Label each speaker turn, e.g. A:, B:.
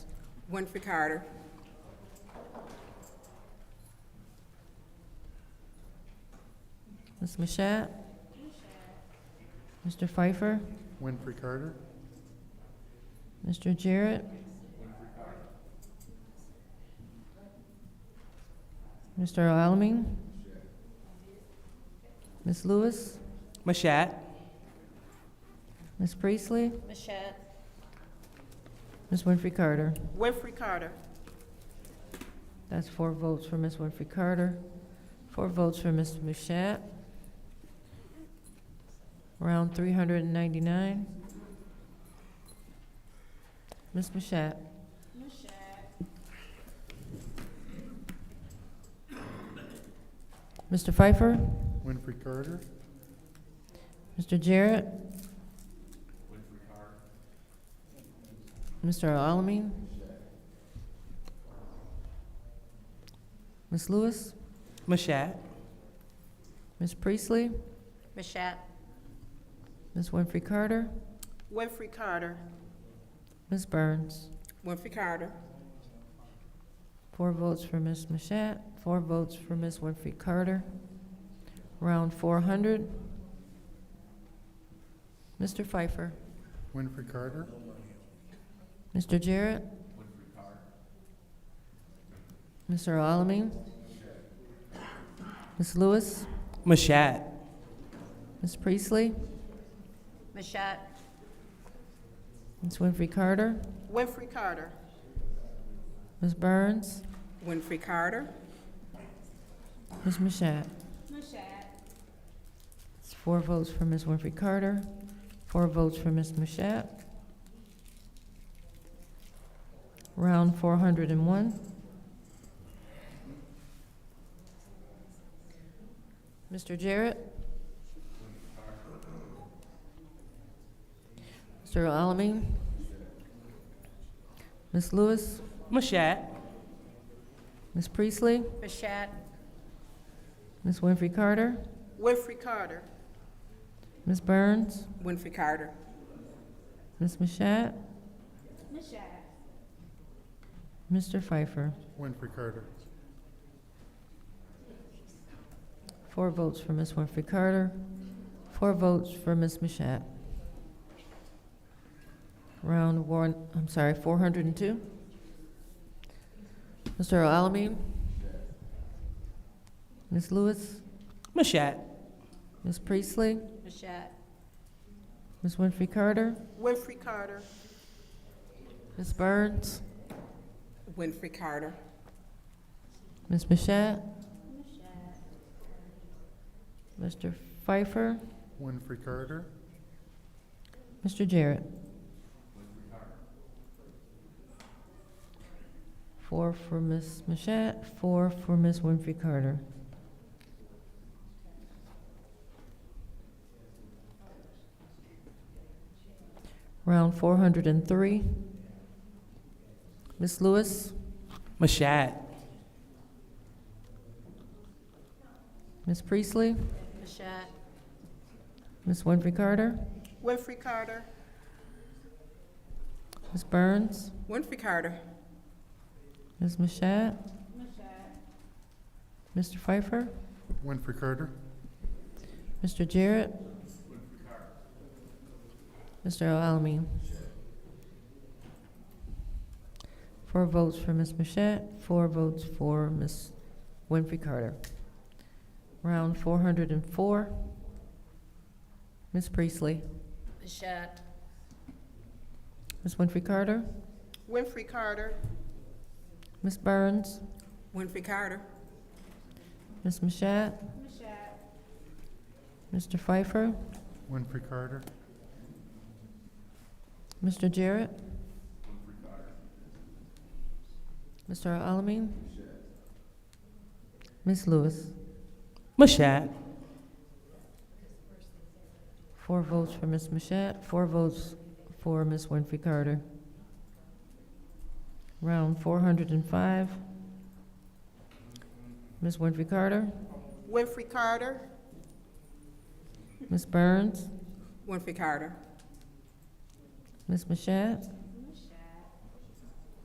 A: Winfrey Carter.
B: Ms. Mashat? Mr. Pfeiffer?
C: Winfrey Carter,
B: Mr. Jarrett? Mr. Alamin? Ms. Lewis?
D: Mashat.
B: Ms. Priestley?
E: Mashat.
B: Ms. Winfrey Carter?
E: Winfrey Carter.
B: That's four votes for Ms. Winfrey Carter, four votes for Mr. Mushat. Round three hundred and ninety-nine. Ms. Mushat. Mr. Pfeiffer,
C: Winfrey Carter,
B: Mr. Jarrett. Mr. Alamin. Ms. Lewis.
D: Mashat.
B: Ms. Priestley,
E: Mashat.
B: Ms. Winfrey Carter,
E: Winfrey Carter.
B: Ms. Burns.
A: Winfrey Carter.
B: Four votes for Ms. Mashat, four votes for Ms. Winfrey Carter. Round four hundred. Mr. Pfeiffer,
C: Winfrey Carter,
B: Mr. Jarrett. Mr. Alamin. Ms. Lewis,
D: Mashat.
B: Ms. Priestley,
E: Mashat.
B: Ms. Winfrey Carter,
E: Winfrey Carter.
B: Ms. Burns,
A: Winfrey Carter.
B: Ms. Mashat.
E: Mashat.
B: It's four votes for Ms. Winfrey Carter, four votes for Ms. Mashat. Round four hundred and one. Mr. Jarrett? Mr. Alamin? Ms. Lewis?
D: Mashat.
B: Ms. Priestley?
E: Mashat.
B: Ms. Winfrey Carter?
E: Winfrey Carter.
B: Ms. Burns?
A: Winfrey Carter.
B: Ms. Mashat?
E: Mashat.
B: Mr. Pfeiffer?
C: Winfrey Carter,
B: Four votes for Ms. Winfrey Carter, four votes for Ms. Mashat. Round one, I'm sorry, four hundred and two. Mr. Alamin? Ms. Lewis?
D: Mashat.
B: Ms. Priestley?
E: Mashat.
B: Ms. Winfrey Carter?
E: Winfrey Carter.
B: Ms. Burns?
A: Winfrey Carter.
B: Ms. Mashat? Mr. Pfeiffer?
C: Winfrey Carter,
B: Mr. Jarrett? Four for Ms. Mashat, four for Ms. Winfrey Carter. Round four hundred and three. Ms. Lewis,
D: Mashat.
B: Ms. Priestley,
E: Mashat.
B: Ms. Winfrey Carter,
E: Winfrey Carter.
B: Ms. Burns,
A: Winfrey Carter.
B: Ms. Mashat, Mr. Pfeiffer,
C: Winfrey Carter,
B: Mr. Jarrett? Mr. Alamin? Four votes for Ms. Mashat, four votes for Ms. Winfrey Carter. Round four hundred and four. Ms. Priestley?
E: Mashat.
B: Ms. Winfrey Carter?
E: Winfrey Carter.
B: Ms. Burns?
A: Winfrey Carter.
B: Ms. Mashat? Mr. Pfeiffer?
C: Winfrey Carter,
B: Mr. Jarrett? Mr. Alamin? Ms. Lewis?
D: Mashat.
B: Four votes for Ms. Mashat, four votes for Ms. Winfrey Carter. Round four hundred and five. Ms. Winfrey Carter?
E: Winfrey Carter.
B: Ms. Burns?
A: Winfrey Carter.
B: Ms. Mashat?